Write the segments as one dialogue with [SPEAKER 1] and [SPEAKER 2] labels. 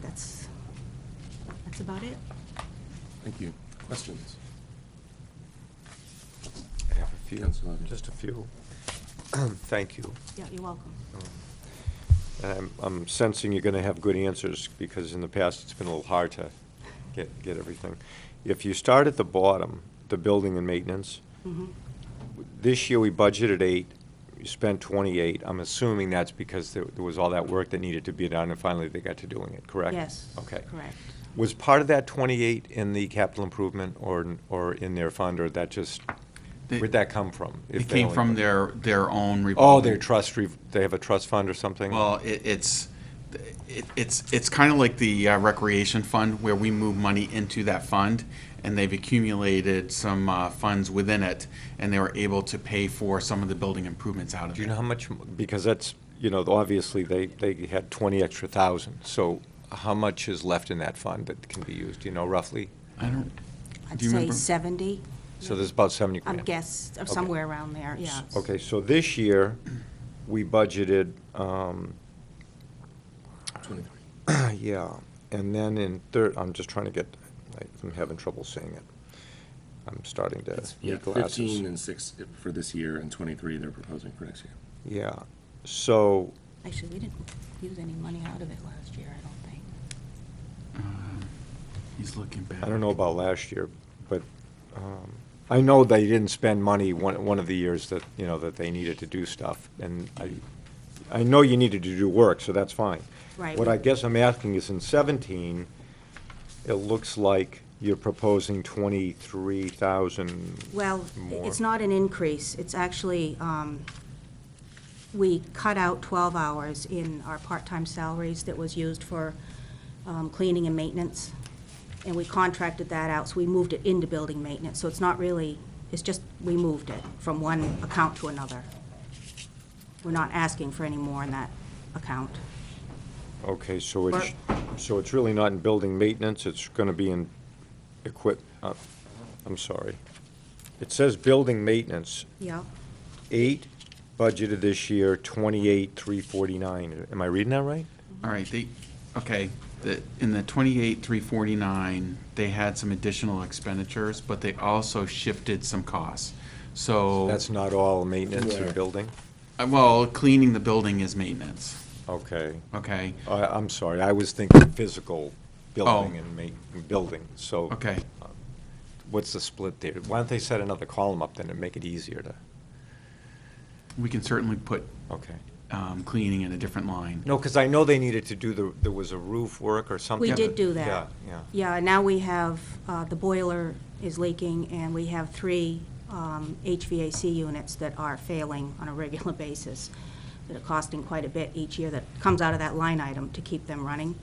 [SPEAKER 1] that's, that's about it.
[SPEAKER 2] Thank you. Questions?
[SPEAKER 3] I have a few,
[SPEAKER 2] Councillor Ivey.
[SPEAKER 3] just a few. Thank you. Um,
[SPEAKER 1] Yeah, you're welcome.
[SPEAKER 3] And I'm- I'm sensing you're going to have good answers, because in the past, it's been a little hard to get, get everything. If you start at the bottom, the building and maintenance,
[SPEAKER 1] Mhm.
[SPEAKER 3] this year we budgeted eight, you spent 28. I'm assuming that's because there there was all that work that needed to be done, and finally they got to doing it, correct?
[SPEAKER 1] Yes.
[SPEAKER 3] Okay.
[SPEAKER 1] Correct.
[SPEAKER 3] Was part of that 28 in the capital improvement or, or in their fund, or that just,
[SPEAKER 4] They-
[SPEAKER 3] where'd that come from? if
[SPEAKER 4] It
[SPEAKER 3] they
[SPEAKER 4] came
[SPEAKER 3] only-
[SPEAKER 4] from their, their own revolving.
[SPEAKER 3] Oh, their trust, re- they have a trust fund or something?
[SPEAKER 4] Well, it, it's, it, it's, it's kind of like the uh, recreation fund where we move money into that fund and they've accumulated some, uh, funds within it and they were able to pay for some of the building improvements out of it.
[SPEAKER 3] Do you know how much, m- because that's, you know, obviously, they, they had 20 extra thousand, so how much is left in that fund that can be used, Do you know, roughly?
[SPEAKER 4] I don't,
[SPEAKER 1] I'd
[SPEAKER 4] do you
[SPEAKER 1] say
[SPEAKER 4] remember?
[SPEAKER 1] seventy,
[SPEAKER 3] So there's about 70
[SPEAKER 1] I'm
[SPEAKER 3] grand.
[SPEAKER 1] guess, or
[SPEAKER 3] Okay.
[SPEAKER 1] somewhere around there, yeah.
[SPEAKER 3] Okay, so this year, we budgeted, um,
[SPEAKER 2] Twenty-three.
[SPEAKER 3] yeah, and then in third, I'm just trying to get, like, I'm having trouble seeing it. I'm starting to
[SPEAKER 2] Yeah,
[SPEAKER 3] need glasses.
[SPEAKER 2] Fifteen and six for this year, and twenty-three they're proposing for next year.
[SPEAKER 3] Yeah, so,
[SPEAKER 1] Actually, we didn't use any money out of it last year, I don't think.
[SPEAKER 4] he's looking back.
[SPEAKER 3] I don't know about last year, but um, I know they didn't spend money one, one of the years that, you know, that they needed to do stuff. And I, I know you needed to do work, so that's fine.
[SPEAKER 1] Right.
[SPEAKER 3] What I guess I'm asking is in 17, it looks like you're proposing 23,000
[SPEAKER 1] Well,
[SPEAKER 3] more.
[SPEAKER 1] it's not an increase, it's actually, um, we cut out twelve hours in our part-time salaries that was used for um, cleaning and maintenance, and we contracted that out, so we moved it into building maintenance, so it's not really, it's just, we moved it from one account to another. We're not asking for any more in that account.
[SPEAKER 3] Okay, so it's, so it's really not in building maintenance, it's gonna be in equip, uh, I'm sorry. It says building maintenance,
[SPEAKER 1] Yeah,
[SPEAKER 3] eight budgeted this year, twenty-eight, three forty-nine. Am I reading that right?
[SPEAKER 4] All right, they, okay, the, in the twenty-eight, three forty-nine, they had some additional expenditures, but they also shifted some costs. So.
[SPEAKER 3] That's not all maintenance and
[SPEAKER 2] Yeah.
[SPEAKER 3] building?
[SPEAKER 4] Uh, Well, cleaning the building is maintenance,
[SPEAKER 3] Okay.
[SPEAKER 4] okay?
[SPEAKER 3] I, I'm sorry, I was thinking physical building
[SPEAKER 4] Oh.
[SPEAKER 3] and ma, building, so.
[SPEAKER 4] Okay.
[SPEAKER 3] What's the split there? Why don't they set another column up then and make it easier to,
[SPEAKER 4] We can certainly put
[SPEAKER 3] okay.
[SPEAKER 4] um, cleaning in a different line.
[SPEAKER 3] No, because I know they needed to do the, there was a roof work or something.
[SPEAKER 1] we did do that.
[SPEAKER 3] Yeah, yeah.
[SPEAKER 1] Yeah, and now we have, uh, the boiler is leaking, and we have three um, HVAC units that are failing on a regular basis, that are costing quite a bit each year, that comes out of that line item to keep them running.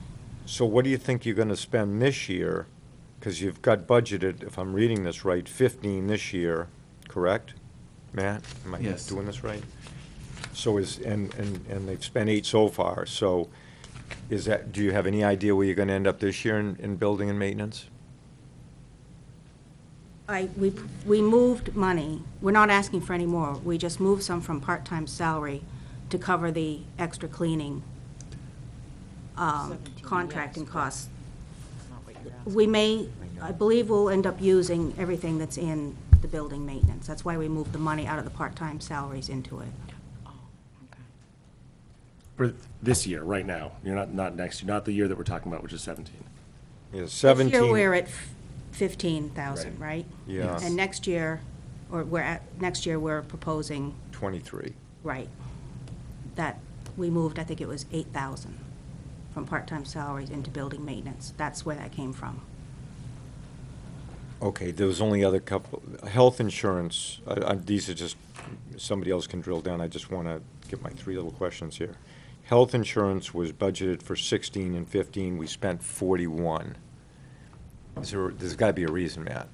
[SPEAKER 3] So what do you think you're gonna spend this year? Because you've got budgeted, if I'm reading this right, fifteen this year, correct? Matt, am I
[SPEAKER 4] Yes.
[SPEAKER 3] doing this right? So is, and, and, and they've spent eight so far, so is that, do you have any idea where you're gonna end up this year in, in building and maintenance?
[SPEAKER 1] I, we, we moved money, we're not asking for any more, we just moved some from part-time salary to cover the extra cleaning um, contracting costs. We may, I believe we'll end up using everything that's in the building maintenance. That's why we moved the money out of the part-time salaries into it.
[SPEAKER 2] For this year, right now, you're not, not next, not the year that we're talking about, which is seventeen.
[SPEAKER 3] Is seventeen?
[SPEAKER 1] This year, we're at fifteen thousand, right?
[SPEAKER 3] Yeah.
[SPEAKER 1] And next year, or we're at, next year, we're proposing
[SPEAKER 3] Twenty-three.
[SPEAKER 1] Right. That, we moved, I think it was 8,000 from part-time salaries into building maintenance. That's where that came from.
[SPEAKER 3] Okay, there was only other couple, health insurance, I, I, these are just, somebody else can drill down, I just wanna get my three little questions here. Health insurance was budgeted for sixteen and fifteen, we spent forty-one. Is there, there's gotta be a reason, Matt.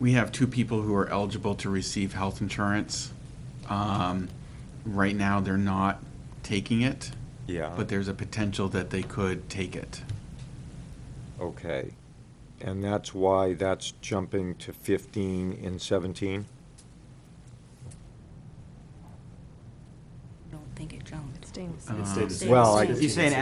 [SPEAKER 4] We have two people who are eligible to receive health insurance. Um, Right now, they're not taking it,
[SPEAKER 3] Yeah.
[SPEAKER 4] but there's a potential that they could take it.
[SPEAKER 3] Okay, and that's why that's jumping to fifteen and seventeen?
[SPEAKER 1] I don't think it jumped.
[SPEAKER 5] It stings.
[SPEAKER 4] Uh,
[SPEAKER 2] It stayed the same.
[SPEAKER 3] Well, I-
[SPEAKER 1] Stayed the
[SPEAKER 4] Um,
[SPEAKER 3] You're
[SPEAKER 1] same.
[SPEAKER 3] saying